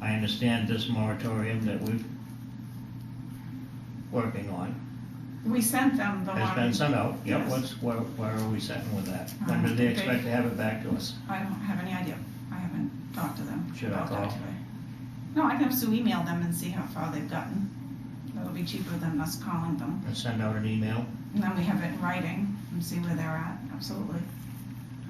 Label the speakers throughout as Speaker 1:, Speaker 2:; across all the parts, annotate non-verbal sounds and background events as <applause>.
Speaker 1: I understand this moratorium that we're working on
Speaker 2: We sent them the
Speaker 1: has been
Speaker 2: one,
Speaker 1: sent out. Yep,
Speaker 2: Yes.
Speaker 1: what's, where, where are we sitting with that? When
Speaker 2: Uh,
Speaker 1: do they
Speaker 2: they-
Speaker 1: expect to have it back to us?
Speaker 2: I don't have any idea, I haven't talked to them
Speaker 1: Should I
Speaker 2: about that
Speaker 1: call?
Speaker 2: today. No, I can have Sue email them and see how far they've gotten, that'll be cheaper than us calling them,
Speaker 1: And send out an email?
Speaker 2: and then we have it in writing and see where they're at, absolutely.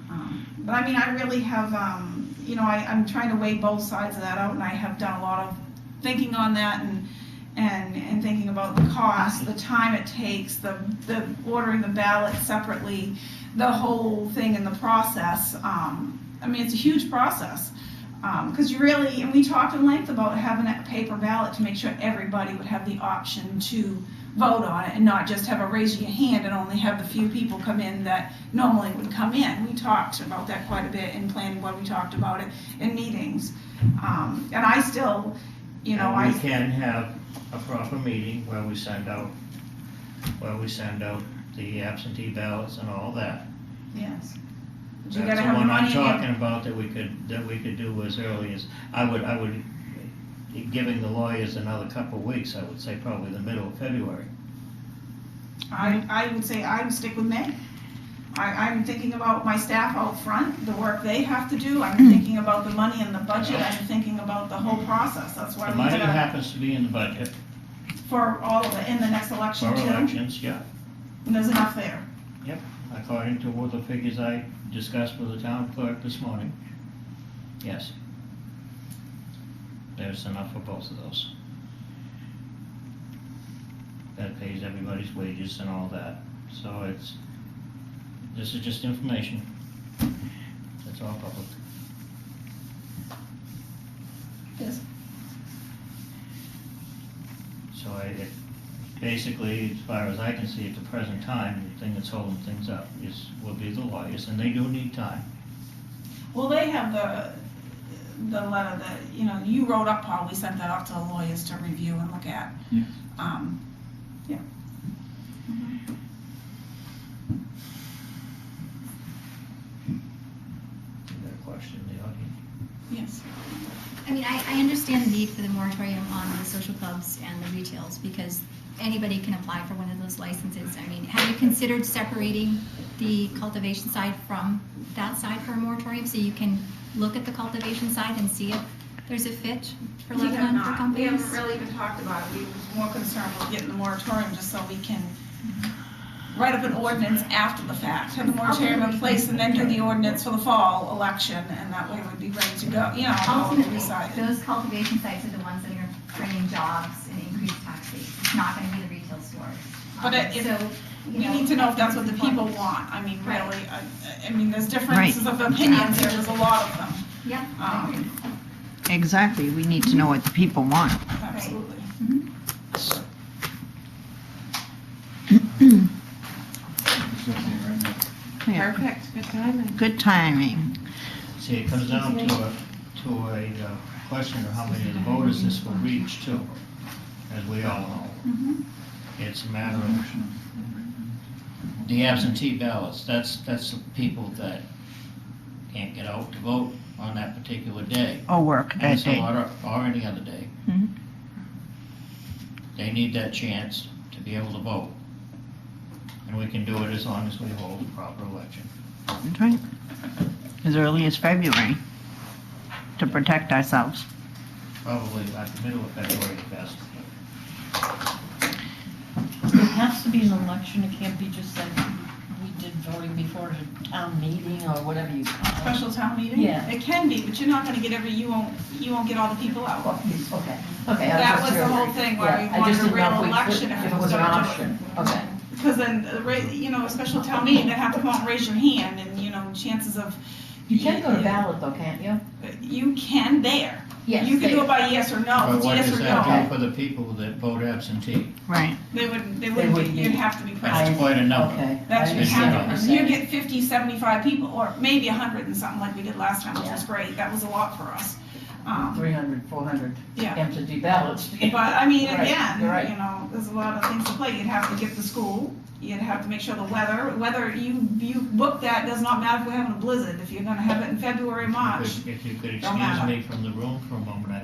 Speaker 2: Um, But I mean, I really have, um, you know, I, I'm trying to weigh both sides of that out, and I have done a lot of thinking on that and, and, and thinking about the cost, the time it takes, the, the ordering the ballot separately, the whole thing and the process. Um, I mean, it's a huge process. Um, cause you really, and we talked in length about having a paper ballot to make sure everybody would have the option to vote on it and not just have a raise your hand and only have the few people come in that normally would come in. We talked about that quite a bit in planning, what we talked about it in meetings. Um, and I still, you know, I.
Speaker 1: And we can have a proper meeting where we send out, where we send out the absentee ballots and all that.
Speaker 2: Yes. But you
Speaker 1: That's the
Speaker 2: gotta have the
Speaker 1: one
Speaker 2: money
Speaker 1: I'm
Speaker 2: in your-
Speaker 1: talking about that we could, that we could do as early as, I would, I would, giving the lawyers another couple of weeks, I would say probably the middle of February.
Speaker 2: I, I would say I would stick with May. I, I'm thinking about my staff out front, the work they have to do, I'm thinking about the money and the budget, I'm thinking about the whole process, that's why
Speaker 1: The
Speaker 2: we
Speaker 1: money
Speaker 2: gotta,
Speaker 1: happens to be in the budget
Speaker 2: for all of it, in the next
Speaker 1: for
Speaker 2: election too,
Speaker 1: elections, yeah,
Speaker 2: and there's enough there.
Speaker 1: according to what the figures I discussed with the town clerk this morning. Yes. There's enough for both of those. That pays everybody's wages and all that, so it's, this is just information. It's all public.
Speaker 2: Yes.
Speaker 1: So I, it, basically, as far as I can see at the present time, the thing that's holding things up is, will be the lawyers, and they do need time.
Speaker 2: Well, they have the, the letter that, you know, you wrote up, Paul, we sent that off to the lawyers to review and look at.
Speaker 3: Yes.
Speaker 2: Um, yeah.
Speaker 1: You got a question, the audience?
Speaker 2: Yes.
Speaker 4: I mean, I, I understand the need for the moratorium on the social clubs and the retails because anybody can apply for one of those licenses. I mean, have you considered separating the cultivation side from that side for a moratorium? So you can look at the cultivation side and see if there's a fit for
Speaker 2: We have
Speaker 4: Lebanon for
Speaker 2: not, we haven't
Speaker 4: companies?
Speaker 2: really even talked about it, we was more concerned with getting the moratorium just so we can
Speaker 4: Mm-hmm.
Speaker 2: write up an ordinance after the fact, have the moratorium in place and then do the ordinance for the fall election, and that way we'd be ready to go, you know, all
Speaker 4: Ultimately,
Speaker 2: decided.
Speaker 4: those cultivation sites are the ones that are bringing jobs and increased taxes. It's not gonna be the retail stores.
Speaker 2: But
Speaker 4: Um,
Speaker 2: it- it-
Speaker 4: so, you
Speaker 2: We need to know if that's what the people want, I mean,
Speaker 4: Right.
Speaker 2: really, I, I mean, there's differences of opinions here, there's a lot of them,
Speaker 4: Yeah, I agree.
Speaker 2: um,
Speaker 5: Exactly, we need to know what the people want.
Speaker 2: absolutely.
Speaker 5: Yeah,
Speaker 6: Perfect, good timing.
Speaker 5: Good timing.
Speaker 1: See, it comes down to a, to a uh, question of how many of the voters this will reach too, as we all know. It's a matter of the absentee ballots, that's, that's the people that can't get out to vote on that particular day.
Speaker 5: Or Oh, work
Speaker 1: And
Speaker 5: that
Speaker 1: so,
Speaker 5: day.
Speaker 1: or, or any other day.
Speaker 5: Mhm.
Speaker 2: Mm-hmm.
Speaker 1: They need that chance to be able to vote. And we can do it as long as we hold a proper election.
Speaker 5: That's right. As early as February, to protect ourselves.
Speaker 1: Probably at the middle of February at best.
Speaker 2: Oh,
Speaker 6: It has to be an election, it can't be just like we did voting before a town meeting or whatever you call it.
Speaker 2: Special town meeting?
Speaker 6: Yeah.
Speaker 2: It can be, but you're not gonna get every, you won't, you won't get all the people out.
Speaker 6: Okay, okay. I
Speaker 2: That
Speaker 6: just
Speaker 2: was the
Speaker 6: heard.
Speaker 2: whole thing, why we
Speaker 6: Yeah, I
Speaker 2: wanted
Speaker 6: just
Speaker 2: a
Speaker 6: didn't know
Speaker 2: real
Speaker 6: if we could-
Speaker 2: election if
Speaker 6: If
Speaker 2: we
Speaker 6: it was an
Speaker 2: started
Speaker 6: option, okay.
Speaker 2: Because then, uh, ra- you know, a special town meeting, they have to come out and raise your hand, and, you know, chances of.
Speaker 6: You can go to ballot though, can't you?
Speaker 2: You can there.
Speaker 6: Yes.
Speaker 2: You can
Speaker 6: they-
Speaker 2: do it by yes or no,
Speaker 1: But
Speaker 2: it's
Speaker 1: what
Speaker 2: yes
Speaker 1: does
Speaker 2: or
Speaker 1: that
Speaker 2: no.
Speaker 1: do for the people that vote absentee?
Speaker 5: Right.
Speaker 2: They wouldn't, they
Speaker 6: wouldn't
Speaker 2: wouldn't,
Speaker 6: be-
Speaker 2: you'd have to be present.
Speaker 1: That's quite a number.
Speaker 6: Okay.
Speaker 2: That's
Speaker 6: I
Speaker 2: your
Speaker 6: understand
Speaker 1: what
Speaker 6: you're
Speaker 2: count. You
Speaker 6: saying.
Speaker 2: get 50, 75 people, or maybe hundred and something like we did last time, which
Speaker 6: Yeah.
Speaker 2: was great, that was a lot for us. Um,
Speaker 6: 300, 400
Speaker 2: Yeah.
Speaker 6: empty ballots. <laughs>
Speaker 2: But I mean,
Speaker 6: Right,
Speaker 2: again,
Speaker 6: you're right.
Speaker 2: you know, there's a lot of things to play. You'd have to get the school. You'd have to make sure the weather, whether you, you book that, does not matter if we're having a blizzard. If you're gonna have it in February, March,
Speaker 1: If if you could
Speaker 2: Don't matter.
Speaker 1: excuse me from the room for a moment, I